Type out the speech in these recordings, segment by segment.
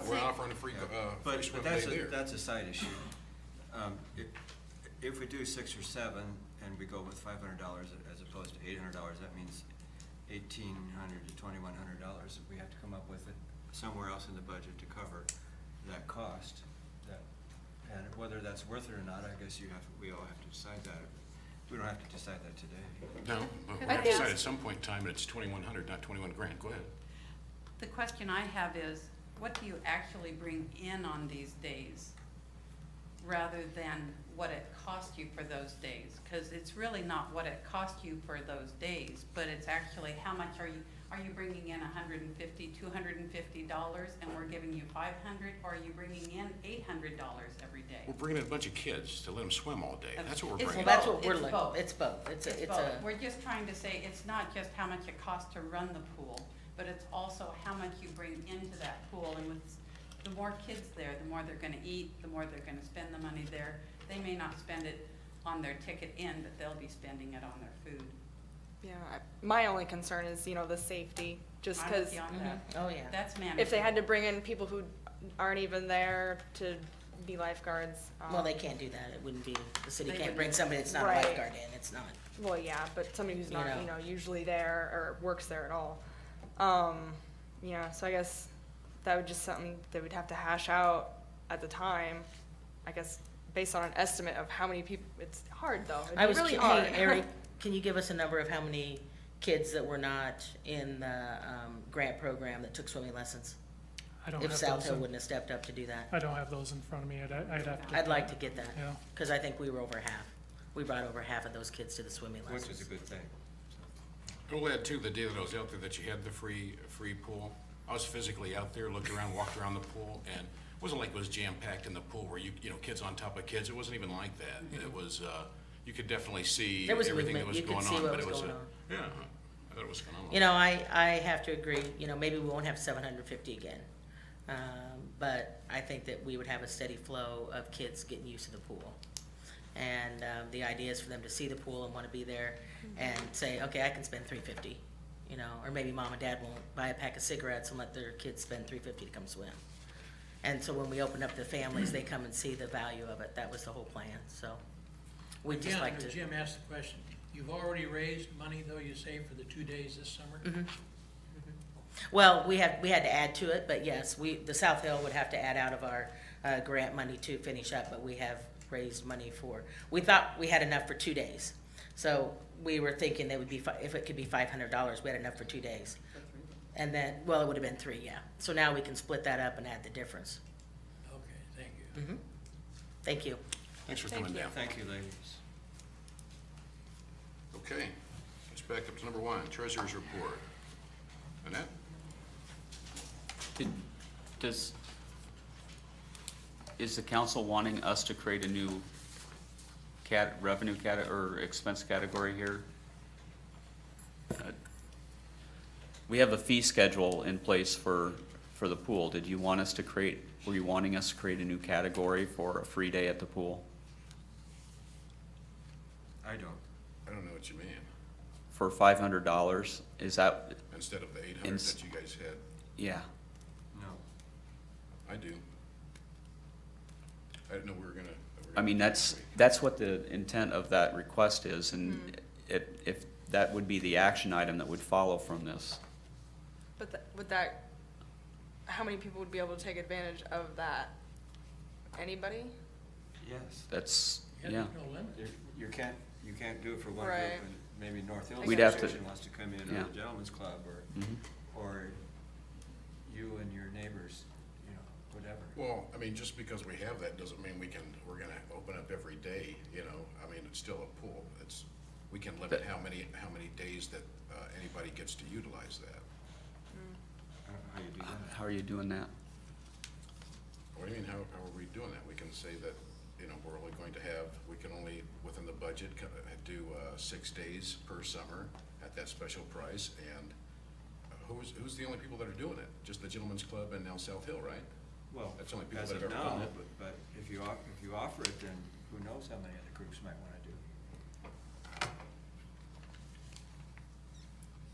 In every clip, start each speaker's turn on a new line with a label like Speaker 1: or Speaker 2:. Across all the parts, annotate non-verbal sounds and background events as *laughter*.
Speaker 1: free,
Speaker 2: Yeah.
Speaker 1: uh, free
Speaker 2: But,
Speaker 1: swim
Speaker 2: but
Speaker 1: day
Speaker 2: that's a,
Speaker 1: there.
Speaker 2: that's a side issue. Um, if, if we do six or seven and we go with five hundred dollars as opposed to eight hundred dollars, that means eighteen hundred to twenty-one hundred dollars. We have to come up with it somewhere else in the budget to cover that cost. That, and whether that's worth it or not, I guess you have, we all have to decide that. We don't have to decide that today.
Speaker 3: No, but we
Speaker 4: I
Speaker 3: have to
Speaker 4: think-
Speaker 3: decide at some point in time that it's twenty-one hundred, not twenty-one grand. Go ahead.
Speaker 4: The question I have is, what do you actually bring in on these days? Rather than what it cost you for those days? Because it's really not what it cost you for those days, but it's actually how much are you, are you bringing in 150 hundred and fifty, two hundred and fifty dollars and we're giving you five hundred? Or are you bringing in eight hundred dollars every day?
Speaker 3: We're bringing in a bunch of kids to let them swim all day. That's what we're
Speaker 4: It's
Speaker 3: bringing.
Speaker 5: Well,
Speaker 3: in.
Speaker 5: that's what we're
Speaker 4: It's
Speaker 5: looking,
Speaker 4: both.
Speaker 5: it's both, it's a, it's
Speaker 4: both.
Speaker 5: a,
Speaker 4: We're just trying to say, it's not just how much it costs to run the pool, but it's also how much you bring into that pool. And with, the more kids there, the more they're gonna eat, the more they're gonna spend the money there. They may not spend it on their ticket in, but they'll be spending it on their food.
Speaker 6: Yeah, I- my only concern is, you know, the safety, just
Speaker 4: I'm with
Speaker 6: because
Speaker 4: you on
Speaker 5: Mhm.
Speaker 4: that.
Speaker 5: oh, yeah.
Speaker 4: That's manageable.
Speaker 6: if they had to bring in people who aren't even there to be lifeguards. um,
Speaker 5: Well, they can't do that, it wouldn't be, the city
Speaker 4: They
Speaker 5: can't
Speaker 4: wouldn't.
Speaker 5: bring somebody that's not a
Speaker 6: Right.
Speaker 5: lifeguard in, it's not.
Speaker 6: Well, yeah, but somebody who's
Speaker 5: You
Speaker 6: not,
Speaker 5: know.
Speaker 6: you know, usually there or works there at all. Um, yeah, so I guess that would just something that we'd have to hash out at the time. I guess based on an estimate of how many people, it's hard though. It'd
Speaker 5: I
Speaker 6: be
Speaker 5: was,
Speaker 6: really
Speaker 5: hey,
Speaker 6: hard.
Speaker 5: Eric, can you give us a number of how many kids that were not in the, um, grant program that took swimming lessons?
Speaker 7: I don't
Speaker 5: If
Speaker 7: have
Speaker 5: South
Speaker 7: those,
Speaker 5: Hill
Speaker 7: in-
Speaker 5: wouldn't have stepped up to do that,
Speaker 7: I don't have those in front of me, I'd, I'd have to.
Speaker 5: I'd like to get that,
Speaker 7: Yeah,
Speaker 5: cause I think we were over half, we brought over half of those kids to the swimming
Speaker 2: Which is a
Speaker 5: lessons.
Speaker 2: good thing.
Speaker 3: We'll add too, the day that I was out there, that you had the free, free pool. I was physically out there, looked around, walked around the pool, and it wasn't like it was jam-packed in the pool where you, you know, kids on top of kids. It wasn't even like that. It was, uh, you could definitely see
Speaker 5: Mm-hmm. There was
Speaker 3: everything that
Speaker 5: movement.
Speaker 3: was
Speaker 5: You could
Speaker 3: going
Speaker 5: see
Speaker 3: on,
Speaker 5: what
Speaker 3: but
Speaker 5: was
Speaker 3: it was a.
Speaker 5: going on.
Speaker 3: Yeah, I thought it was phenomenal.
Speaker 5: You know, I, I have to agree, you know, maybe we won't have seven hundred and fifty again. Um, but I think that we would have a steady flow of kids getting used to the pool. And, um, the idea is for them to see the pool and wanna be there and say, okay, I can spend three fifty, you know, or maybe mom and dad won't buy a pack of cigarettes and let their kids spend three fifty to come swim. And so when we open up the families, they come and see the value of it. That was the whole plan, so we'd just
Speaker 8: Yeah,
Speaker 5: like
Speaker 8: no,
Speaker 5: to.
Speaker 8: Jim asked the question. You've already raised money, though, you say, for the two days this summer?
Speaker 5: Well, we had, we had to add to it, but yes, we, the South Hill would have to add out of our, uh, grant money to finish up, but we have raised money for, we thought we had enough for two days. So we were thinking that would be, fi- if it could be five hundred dollars, we had enough for two days. And then, well, it would have been three, yeah. So now we can split that up and add the difference.
Speaker 8: Okay, thank you.
Speaker 5: Mhm. Thank you.
Speaker 3: Thanks for coming down.
Speaker 2: Thank you, ladies.
Speaker 3: Okay, let's back up to number one, treasurer's report. Annette?
Speaker 9: Did- Does, is the council wanting us to create a new cat, revenue cat, or expense category here? Uh, We have a fee schedule in place for, for the pool. Did you want us to create, were you wanting us to create a new category for a free day at the pool?
Speaker 2: I don't.
Speaker 3: I don't know what you mean.
Speaker 9: For five hundred dollars? Is that,
Speaker 3: Instead of the eight hundred
Speaker 9: Ins-
Speaker 3: that you guys had,
Speaker 9: yeah.
Speaker 2: No.
Speaker 3: I do. I didn't know we were gonna. that we were
Speaker 9: I
Speaker 3: gonna
Speaker 9: mean,
Speaker 3: do
Speaker 9: that's,
Speaker 3: that week.
Speaker 9: that's what the intent of that request is, and it, if, that would be the action item that would follow from this.
Speaker 6: *laughs* But th- would that, how many people would be able to take advantage of that? Anybody?
Speaker 2: Yes.
Speaker 9: That's,
Speaker 8: Yeah,
Speaker 9: yeah.
Speaker 8: there's no limit.
Speaker 2: You- You can't, you can't do it for one group,
Speaker 6: Right.
Speaker 2: and maybe North Hills
Speaker 9: We'd have to-
Speaker 2: Association wants to come in, or
Speaker 9: Yeah.
Speaker 2: the Gentlemen's Club, or,
Speaker 9: Mhm.
Speaker 2: or you and your neighbors, you know, whatever.
Speaker 3: Well, I mean, just because we have that doesn't mean we can, we're gonna open up every day, you know, I mean, it's still a pool, it's, we can limit
Speaker 9: But-
Speaker 3: how many, how many days that, uh, anybody gets to utilize that.
Speaker 2: I don't know how you do that.
Speaker 9: How are you doing that?
Speaker 3: What do you mean, how, how are we doing that? We can say that, you know, we're only going to have, we can only, within the budget, co- uh, do, uh, six days per summer at that special price, and uh, who's, who's the only people that are doing it? Just the Gentlemen's Club and now South Hill, right?
Speaker 2: Well,
Speaker 3: That's the only people
Speaker 2: as
Speaker 3: that
Speaker 2: of
Speaker 3: have ever done
Speaker 2: now,
Speaker 3: it.
Speaker 2: but- But if you, off- if you offer it, then who knows how many other groups might wanna do it.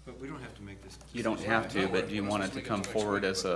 Speaker 2: But we don't have to make this.
Speaker 9: You don't have
Speaker 3: No,
Speaker 9: to,
Speaker 3: we're-
Speaker 9: but do you
Speaker 3: we're
Speaker 9: want it
Speaker 3: supposed
Speaker 9: to
Speaker 3: to
Speaker 9: come
Speaker 3: make it to next
Speaker 9: forward
Speaker 3: week,
Speaker 9: as
Speaker 3: but-
Speaker 9: a,